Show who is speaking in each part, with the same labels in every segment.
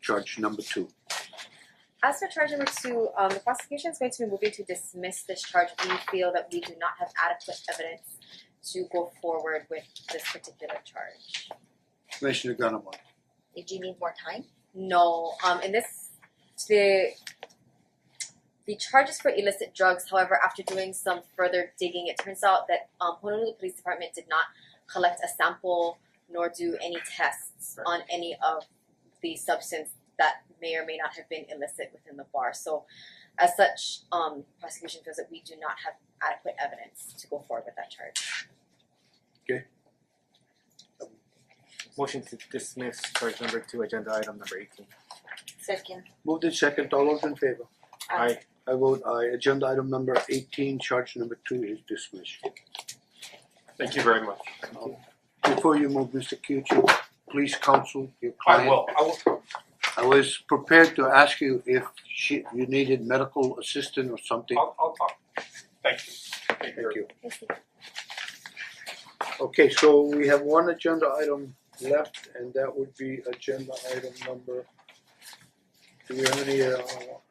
Speaker 1: charge number two.
Speaker 2: As for charge number two, um the prosecution is going to be moving to dismiss this charge. We feel that we do not have adequate evidence to go forward with this particular charge.
Speaker 1: Commissioner Ganamon,
Speaker 3: Did you need more time?
Speaker 2: No, um in this the the charges for illicit drugs, however, after doing some further digging, it turns out that um Honolulu Police Department did not collect a sample nor do any tests on any of the substance that may or may not have been illicit within the bar. So as such, um prosecution feels that we do not have adequate evidence to go forward with that charge.
Speaker 4: Motion to dismiss charge number two, agenda item number eighteen.
Speaker 3: Second.
Speaker 1: moved in second, all those in favor?
Speaker 4: Aye.
Speaker 1: I vote aye, agenda item number eighteen, charge number two is dismissed.
Speaker 5: Thank you very much.
Speaker 1: Before you move, Mister Kyuchi, please counsel your
Speaker 5: I
Speaker 1: client.
Speaker 5: will, I will,
Speaker 1: I was prepared to ask you if she, you needed medical assistance or something.
Speaker 5: I'll, I'll talk. Thank you. Thank you.
Speaker 1: Thank you. Okay, so we have one agenda item left and that would be agenda item number. Do we have any uh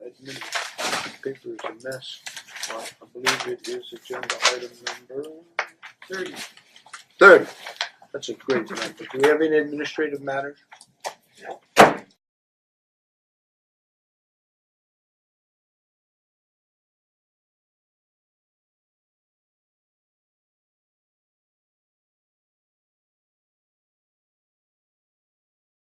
Speaker 1: admin paper is a mess? Well, Uh, I believe it is agenda item number
Speaker 5: Thirty.
Speaker 1: third. That's a great number. Do we have any administrative matters?